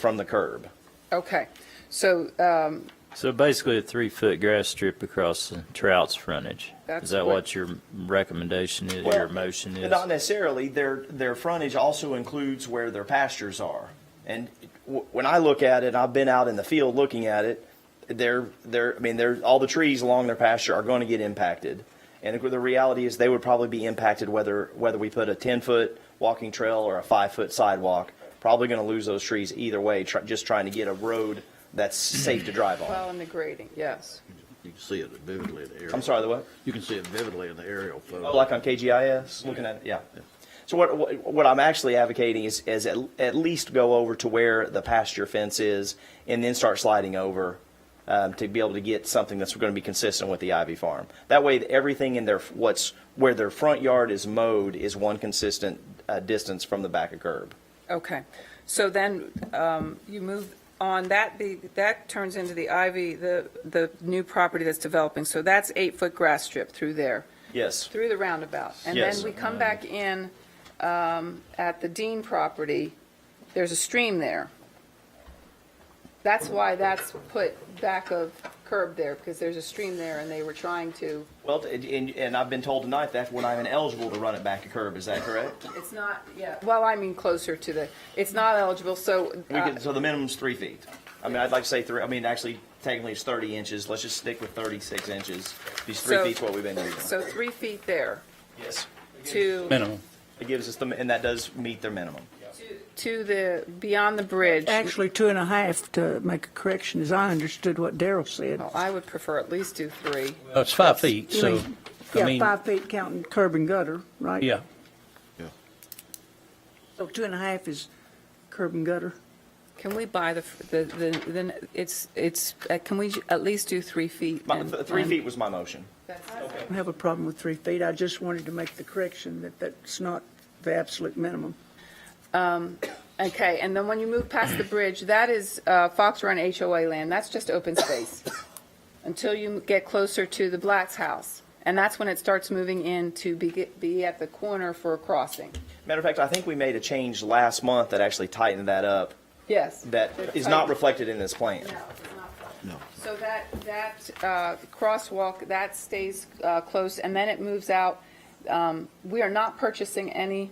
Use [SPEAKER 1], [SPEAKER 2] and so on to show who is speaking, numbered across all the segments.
[SPEAKER 1] from the curb.
[SPEAKER 2] Okay, so, um,
[SPEAKER 3] So basically, a three-foot grass strip across the trout's frontage.
[SPEAKER 2] That's
[SPEAKER 3] Is that
[SPEAKER 2] what-
[SPEAKER 3] what your recommendation is, your motion is?
[SPEAKER 1] Not necessarily. Their, their frontage also includes where their pastures are. And w- when I look at it, I've been out in the field looking at it, they're, they're, I mean, they're, all the trees along their pasture are going to get impacted. And the reality is they would probably be impacted whether, whether we put a 10-foot walking trail or a five-foot sidewalk. Probably going to lose those trees either way, try, just trying to get a road that's safe to drive on.
[SPEAKER 2] well, and the grading, yes.
[SPEAKER 4] You can see it vividly in the aerial.
[SPEAKER 1] I'm sorry, the what?
[SPEAKER 4] You can see it vividly in the aerial photo.
[SPEAKER 1] Oh, like on KGIS, looking at it, yeah. So what, what, what I'm actually advocating is, is at, at least go over to where the pasture fence is and then start sliding over, um, to be able to get something that's gonna be consistent with the Ivy Farm. That way, everything in their, what's, where their front yard is mowed is one consistent, uh, distance from the back of curb.
[SPEAKER 2] Okay, so then um, you move on, that, be that turns into the Ivy, the, the new property that's developing. So that's eight-foot grass strip through there,
[SPEAKER 1] Yes,
[SPEAKER 2] through the roundabout. And then
[SPEAKER 1] Yes.
[SPEAKER 2] we come back in um, at the Dean property, there's a stream there. That's why that's put back of curb there, because there's a stream there and they were trying to,
[SPEAKER 1] well, and, and- and I've been told tonight that we're not even eligible to run it back to curb, is that correct?
[SPEAKER 2] it's not, yeah, well, I mean closer to the, it's not eligible, so.
[SPEAKER 1] We
[SPEAKER 2] uh,
[SPEAKER 1] could, so the minimum's three feet. I mean, I'd like to say three, I mean, actually, technically it's thirty inches, let's just stick with thirty-six inches. These three
[SPEAKER 2] So-
[SPEAKER 1] feet's what we've been using.
[SPEAKER 2] So three feet there
[SPEAKER 1] Yes.
[SPEAKER 2] to.
[SPEAKER 5] minimum.
[SPEAKER 1] It gives us the, and that does meet their minimum.
[SPEAKER 2] to the, beyond the bridge.
[SPEAKER 6] Actually, two and a half to make a correction, as I understood what Daryl said.
[SPEAKER 2] Well, Oh, I would prefer at least do three.
[SPEAKER 5] Uh, It's five feet,
[SPEAKER 6] You
[SPEAKER 5] so,
[SPEAKER 6] mean-
[SPEAKER 5] I
[SPEAKER 6] Yeah,
[SPEAKER 5] mean,
[SPEAKER 6] five feet counting curb and gutter, right?
[SPEAKER 5] yeah,
[SPEAKER 6] So two and a half is curb and gutter.
[SPEAKER 2] Can we buy the, the, the- then, it's, it's, uh, can we at least do three feet?
[SPEAKER 1] My,
[SPEAKER 2] and-
[SPEAKER 1] th- three
[SPEAKER 2] and-
[SPEAKER 1] feet was my motion.
[SPEAKER 6] I don't have a problem with three feet. I just wanted to make the correction that that's not the absolute minimum.
[SPEAKER 2] Okay, and then when you move past the bridge, that is uh, Fox Run HOA land, that's just open space. Until you get closer to the Black's house. And that's when it starts moving in to be, be at the corner for a crossing.
[SPEAKER 1] Matter of fact, I think we made a change last month that actually tightened that up,
[SPEAKER 2] Yes.
[SPEAKER 1] that is not reflected in this plan.
[SPEAKER 2] No, it's not. So that, that uh, crosswalk, that stays uh, close, and then it moves out. Um, We are not purchasing any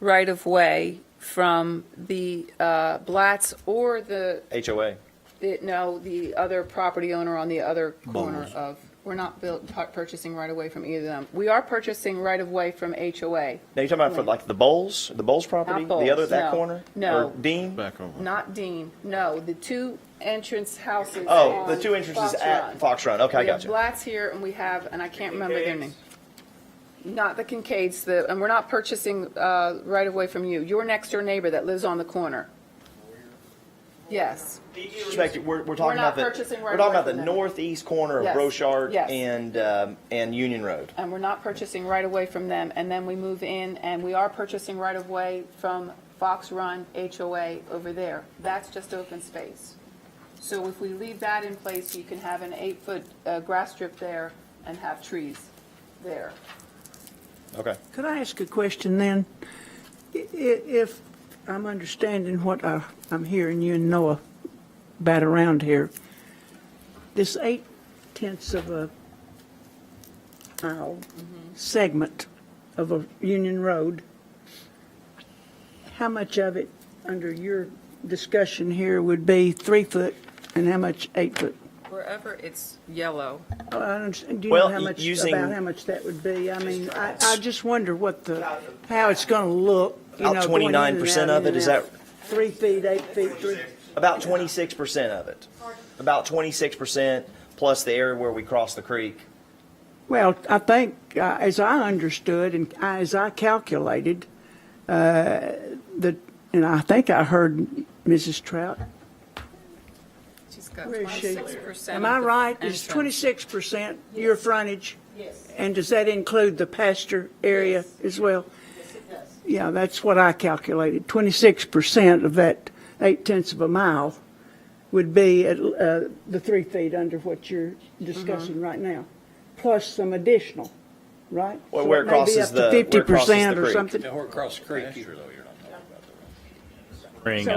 [SPEAKER 2] right-of-way from the uh, Blatts or the,
[SPEAKER 1] HOA.
[SPEAKER 2] the- no, the other property owner on the other corner of, we're not built- pu- purchasing right-of-way from either of them. We are purchasing right-of-way from HOA,
[SPEAKER 1] Now, you're talking about for like the Bowles, the Bowles property?
[SPEAKER 2] Not
[SPEAKER 1] The other,
[SPEAKER 2] Bowles,
[SPEAKER 1] that
[SPEAKER 2] no.
[SPEAKER 1] corner?
[SPEAKER 2] No.
[SPEAKER 1] Or Dean?
[SPEAKER 4] Back over.
[SPEAKER 2] not Dean, no, the two entrance houses
[SPEAKER 1] Oh, the
[SPEAKER 2] on
[SPEAKER 1] two entrances
[SPEAKER 2] Fox Run.
[SPEAKER 1] at Fox Run, okay, I
[SPEAKER 2] We have
[SPEAKER 1] got you.
[SPEAKER 2] Blatts here, and we have, and I can't remember their name. Not the Kincaids, the, and we're not purchasing uh, right away from you. Your next door neighbor that lives on the corner. Yes,
[SPEAKER 1] Respect, we're, we're
[SPEAKER 2] We're
[SPEAKER 1] talking
[SPEAKER 2] not
[SPEAKER 1] about the,
[SPEAKER 2] purchasing right
[SPEAKER 1] we're talking
[SPEAKER 2] away
[SPEAKER 1] about the
[SPEAKER 2] from them.
[SPEAKER 1] northeast corner of
[SPEAKER 2] Yes.
[SPEAKER 1] Rochard
[SPEAKER 2] Yes.
[SPEAKER 1] and, um, and Union Road.
[SPEAKER 2] and we're not purchasing right away from them, and then we move in, and we are purchasing right away from Fox Run HOA over there. That's just open space. So if we leave that in place, you can have an eight-foot uh, grass strip there and have trees there.
[SPEAKER 1] Okay.
[SPEAKER 6] Could I ask a question then? I- i- If I'm understanding what I- I'm hearing you and Noah bat around here, this eight tenths of a mile segment of a Union Road, how much of it, under your discussion here, would be three foot and how much eight foot?
[SPEAKER 2] Wherever it's yellow.
[SPEAKER 6] Oh, I understand. Do you
[SPEAKER 1] Well,
[SPEAKER 6] know how much,
[SPEAKER 1] using-
[SPEAKER 6] about how much that would be? I mean, I, I just wonder what the, how it's going to look, you know.
[SPEAKER 1] About
[SPEAKER 6] going in and
[SPEAKER 1] 29%
[SPEAKER 6] out,
[SPEAKER 1] of
[SPEAKER 6] in
[SPEAKER 1] it, is
[SPEAKER 6] and
[SPEAKER 1] that-
[SPEAKER 6] out. Three feet, eight feet, three,
[SPEAKER 1] About twenty-six percent of it. About twenty-six percent plus the area where we cross the creek.
[SPEAKER 6] well, I think, uh, as I understood and I- as I calculated, uh, the, and I think I heard Mrs. Trout,
[SPEAKER 2] She's got
[SPEAKER 6] where is she?
[SPEAKER 2] 26%
[SPEAKER 6] Am I
[SPEAKER 2] of the
[SPEAKER 6] right? Is
[SPEAKER 2] entrance.
[SPEAKER 6] twenty-six percent your frontage? Yes. And does that include the pasture area as well? Yeah, that's what I calculated. Twenty-six percent of that eight tenths of a mile would be at, uh, the three feet under what you're discussing right now, plus some additional, right?
[SPEAKER 1] Well,
[SPEAKER 6] So
[SPEAKER 1] where
[SPEAKER 6] it
[SPEAKER 1] it
[SPEAKER 6] may be
[SPEAKER 1] crosses
[SPEAKER 6] up
[SPEAKER 1] the-
[SPEAKER 6] to
[SPEAKER 1] where it crosses the
[SPEAKER 6] 50% or
[SPEAKER 1] creek.
[SPEAKER 6] something.
[SPEAKER 5] across the creek.
[SPEAKER 3] Ring,
[SPEAKER 6] So
[SPEAKER 3] I